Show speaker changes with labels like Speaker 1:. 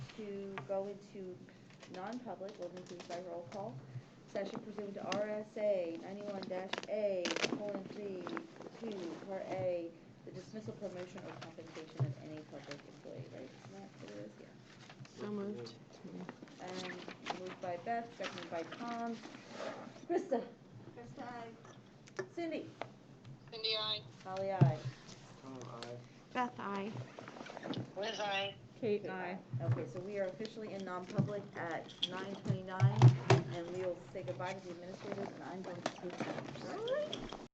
Speaker 1: go into non-public, will increase by roll call, session pursuant to RSA ninety-one dash A, colon, three, two, part A, the dismissal, promotion, or compensation of any public employee, right? Isn't that what it is? Yeah.
Speaker 2: So moved.
Speaker 1: And moved by Beth, seconded by Tom. Krista?
Speaker 3: Krista, aye.
Speaker 1: Cindy?
Speaker 4: Cindy, I.
Speaker 1: Holly, aye.
Speaker 2: Beth, I.
Speaker 4: Liz, I.
Speaker 1: Kate, aye. Okay, so we are officially in non-public at nine twenty-nine, and we will say goodbye to the administrators, and I'm going to.